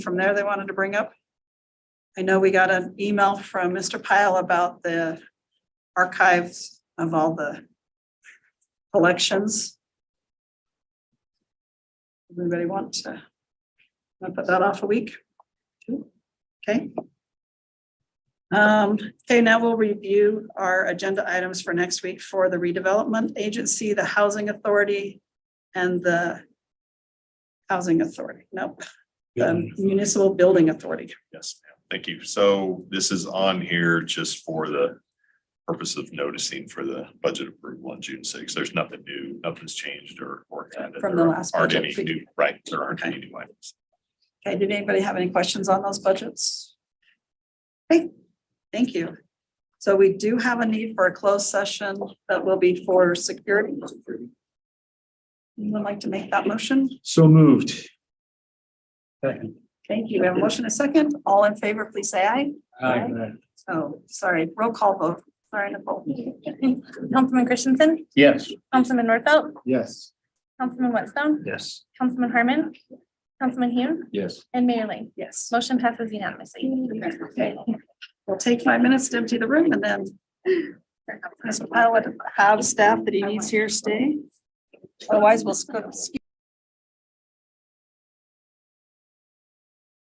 from there they wanted to bring up? I know we got an email from Mr. Pyle about the archives of all the collections. Anybody want to wanna put that off a week? Two? Okay. Um, okay, now we'll review our agenda items for next week for the redevelopment agency, the housing authority, and the housing authority, nope Um, the municipal building authority. Yes, ma'am. Thank you. So this is on here just for the purpose of noticing for the budget approval on June sixth. There's nothing new, nothing's changed or, or added. From the There last Aren't any budget. new, right, there aren't any new items. Okay, did anybody have any questions on those budgets? Okay, thank you. So we do have a need for a closed session that will be for security. Anyone like to make that motion? So moved. Second. Thank you. We have a motion and a second. All in favor, please say aye. Aye. Oh, sorry, roll call vote. Sorry, Nicole. Councilman Christensen, Yes. Councilman Northfelt, Yes. Councilman Whitstone, Yes. Councilman Harmon, Councilman Hune, Yes. and Mayor Ling. Yes. Motion passes unanimously. Okay. We'll take five minutes to empty the room and then Mr. Pilot, have staff that he needs here stay. Otherwise, we'll skip. skip